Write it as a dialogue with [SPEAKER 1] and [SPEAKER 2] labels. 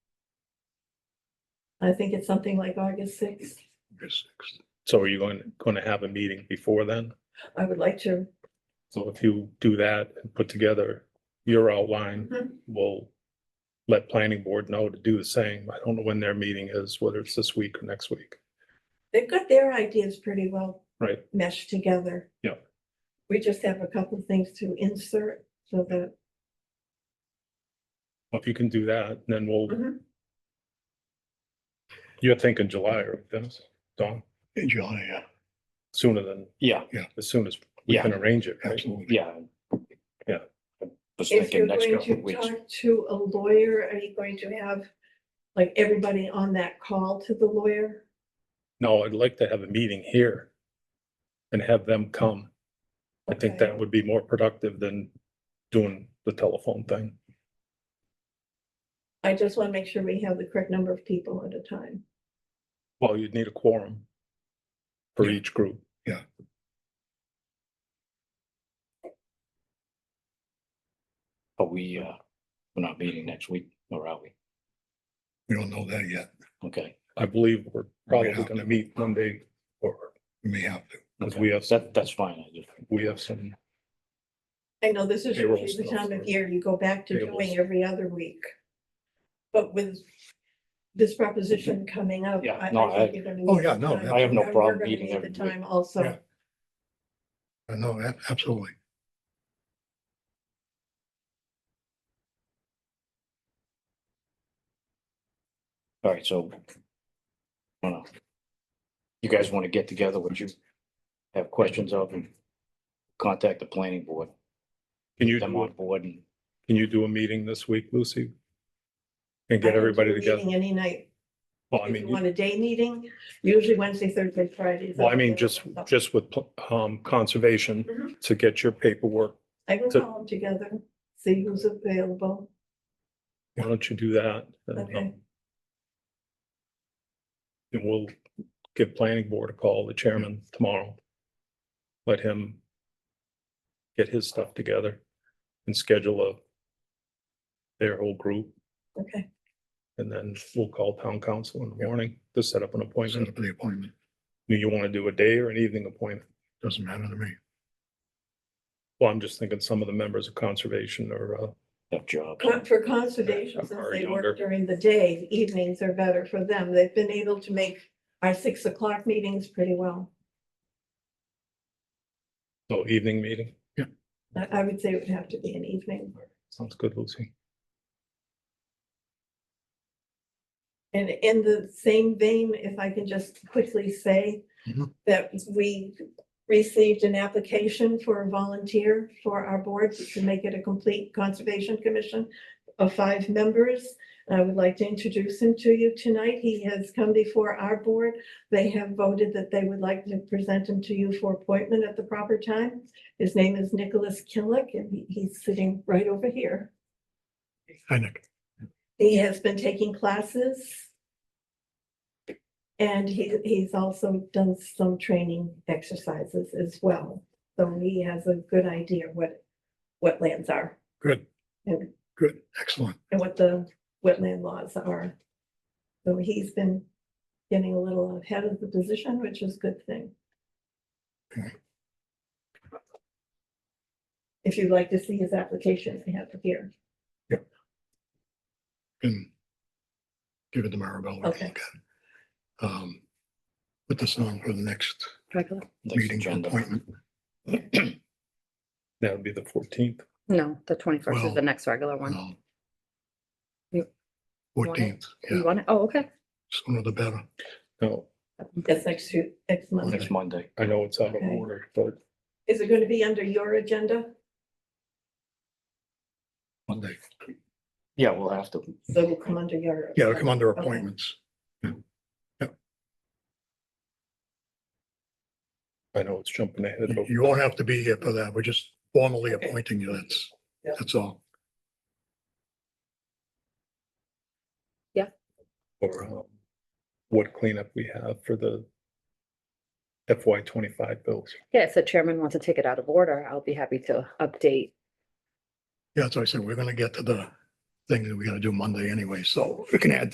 [SPEAKER 1] I think it's something like August sixth.
[SPEAKER 2] August 6th. So are you going, going to have a meeting before then?
[SPEAKER 1] I would like to,
[SPEAKER 2] So if you do that and put together your outline,
[SPEAKER 1] Mhm.
[SPEAKER 2] we'll let planning board know to do the same. I don't know when their meeting is, whether it's this week or next week.
[SPEAKER 1] they've got their ideas pretty well.
[SPEAKER 2] Right.
[SPEAKER 1] Meshed together.
[SPEAKER 2] Yeah.
[SPEAKER 1] We just have a couple of things to insert so that,
[SPEAKER 2] If you can do that, then we'll,
[SPEAKER 1] Mhm.
[SPEAKER 2] you're thinking July, right, Dennis? Dawn,
[SPEAKER 3] In July, yeah,
[SPEAKER 2] sooner than,
[SPEAKER 4] Yeah,
[SPEAKER 2] as soon as we can arrange it, right?
[SPEAKER 3] absolutely.
[SPEAKER 4] yeah.
[SPEAKER 2] Yeah.
[SPEAKER 4] I Was
[SPEAKER 1] if you're
[SPEAKER 4] thinking next
[SPEAKER 1] going
[SPEAKER 4] couple of
[SPEAKER 1] to
[SPEAKER 4] weeks.
[SPEAKER 1] talk to a lawyer, are you going to have like everybody on that call to the lawyer?
[SPEAKER 2] No, I'd like to have a meeting here and have them come. I think
[SPEAKER 1] Okay.
[SPEAKER 2] that would be more productive than doing the telephone thing.
[SPEAKER 1] I just want to make sure we have the correct number of people at a time.
[SPEAKER 2] Well, you'd need a quorum for
[SPEAKER 3] Yeah.
[SPEAKER 2] each group.
[SPEAKER 3] Yeah.
[SPEAKER 4] But we, uh, we're not meeting next week, or are we?
[SPEAKER 3] We don't know that yet.
[SPEAKER 4] Okay.
[SPEAKER 2] I believe we're probably
[SPEAKER 3] Yeah.
[SPEAKER 2] gonna meet Monday or,
[SPEAKER 3] We may have to.
[SPEAKER 2] because
[SPEAKER 4] okay.
[SPEAKER 2] we have, some-
[SPEAKER 4] That, that's fine. I just,
[SPEAKER 2] we have some,
[SPEAKER 1] I know this is
[SPEAKER 2] Payroll
[SPEAKER 1] usually the
[SPEAKER 2] stuff
[SPEAKER 1] time
[SPEAKER 2] or
[SPEAKER 1] of year you go back to
[SPEAKER 2] payroll
[SPEAKER 1] doing
[SPEAKER 2] stuff.
[SPEAKER 1] every other week. But with this proposition coming up.
[SPEAKER 4] Yeah,
[SPEAKER 1] I- I
[SPEAKER 4] no,
[SPEAKER 1] think
[SPEAKER 4] I-
[SPEAKER 1] you're gonna
[SPEAKER 3] Oh,
[SPEAKER 1] need
[SPEAKER 3] yeah,
[SPEAKER 1] the
[SPEAKER 3] no,
[SPEAKER 1] time.
[SPEAKER 3] I
[SPEAKER 4] have no
[SPEAKER 1] And we're
[SPEAKER 4] problem
[SPEAKER 1] gonna
[SPEAKER 4] meeting
[SPEAKER 1] need
[SPEAKER 4] every
[SPEAKER 1] The
[SPEAKER 4] week.
[SPEAKER 1] time also.
[SPEAKER 3] Yeah. I know, ab- absolutely.
[SPEAKER 4] all right, so. I don't know. You guys want to get together, what you have questions of and contact the planning board,
[SPEAKER 2] can you,
[SPEAKER 4] get them
[SPEAKER 2] do
[SPEAKER 4] on
[SPEAKER 2] a-
[SPEAKER 4] board and,
[SPEAKER 2] can you do a meeting this week, Lucy? And
[SPEAKER 1] I
[SPEAKER 2] get
[SPEAKER 1] don't do
[SPEAKER 2] everybody
[SPEAKER 1] a
[SPEAKER 2] together?
[SPEAKER 1] meeting Any night.
[SPEAKER 2] Well, I
[SPEAKER 1] If you
[SPEAKER 2] mean, you-
[SPEAKER 1] want a day meeting, usually Wednesday, Thursday, Friday.
[SPEAKER 2] well, I mean, just, just with, pl- um, conservation
[SPEAKER 1] Mhm.
[SPEAKER 2] to get your paperwork.
[SPEAKER 1] I can
[SPEAKER 2] to-
[SPEAKER 1] call them together, see who's available.
[SPEAKER 2] Why don't you do that? and, um,
[SPEAKER 1] Okay.
[SPEAKER 2] And we'll give planning board a call, the chairman tomorrow. Let him get his stuff together and schedule a their whole group,
[SPEAKER 1] Okay,
[SPEAKER 2] and then we'll call town council in the morning to set up an
[SPEAKER 3] Set
[SPEAKER 2] appointment.
[SPEAKER 3] up the appointment.
[SPEAKER 2] Do you want to do a day or an evening appointment?
[SPEAKER 3] Doesn't matter to me.
[SPEAKER 2] Well, I'm just thinking some of the members of conservation or, uh,
[SPEAKER 4] have jobs.
[SPEAKER 1] Con- for conservation, since
[SPEAKER 2] Or
[SPEAKER 1] they
[SPEAKER 2] younger.
[SPEAKER 1] work during the day, evenings are better for them. They've been able to make our six o'clock meetings pretty well.
[SPEAKER 2] so oh, evening meeting.
[SPEAKER 1] I, I would say it would have to be an evening.
[SPEAKER 2] Sounds good, Lucy.
[SPEAKER 1] And in the same vein, if I can just quickly say
[SPEAKER 3] Mhm.
[SPEAKER 1] that we received an application for a volunteer for our board to make it a complete conservation commission of five members. And I would like to introduce him to you tonight. He has come before our board. They have voted that they would like to present him to you for appointment at the proper time. His name is Nicholas Killick, and he- he's sitting right over here.
[SPEAKER 3] I think.
[SPEAKER 1] He has been taking classes. And he, he's also done some training exercises as well. So he has a good idea what wetlands are
[SPEAKER 3] Good,
[SPEAKER 1] and,
[SPEAKER 3] good, excellent.
[SPEAKER 1] and what the wetland laws are. So he's been getting a little ahead of the position, which is a good thing.
[SPEAKER 3] Okay.
[SPEAKER 1] If you'd like to see his application, I have it here.
[SPEAKER 3] And give it to Maribel. to
[SPEAKER 1] Okay.
[SPEAKER 3] look at. Um, Put this on for the next
[SPEAKER 5] Regular?
[SPEAKER 4] next
[SPEAKER 3] meeting
[SPEAKER 4] agenda.
[SPEAKER 3] appointment.
[SPEAKER 2] That would be the fourteenth.
[SPEAKER 5] No, the twenty-first is
[SPEAKER 3] Well,
[SPEAKER 5] the next regular one. You- want it?
[SPEAKER 3] Fourteenth, yeah,
[SPEAKER 5] You want it? Oh, okay.
[SPEAKER 3] sooner the better.
[SPEAKER 2] No,
[SPEAKER 1] That's next, to- next month.
[SPEAKER 4] Next Monday.
[SPEAKER 2] I know it's out of
[SPEAKER 1] Okay.
[SPEAKER 2] order, but
[SPEAKER 1] Is it going to be under your agenda?
[SPEAKER 3] Monday.
[SPEAKER 4] Yeah, we'll have to.
[SPEAKER 1] So it'll come under your.
[SPEAKER 3] Yeah, it'll come under
[SPEAKER 1] Okay.
[SPEAKER 3] appointments.
[SPEAKER 2] I know it's jumping ahead.
[SPEAKER 3] You
[SPEAKER 2] but-
[SPEAKER 3] you won't have to be here for that. We're just formally
[SPEAKER 1] Okay.
[SPEAKER 3] appointing you. That's,
[SPEAKER 1] Yeah.
[SPEAKER 3] that's all.
[SPEAKER 2] or um, what cleanup we have for the FY twenty-five bills.
[SPEAKER 5] Yeah, if the chairman wants to take it out of order, I'll be happy to update.
[SPEAKER 3] Yeah, that's what I said. We're gonna get to the thing that we gotta do Monday anyway, so we can add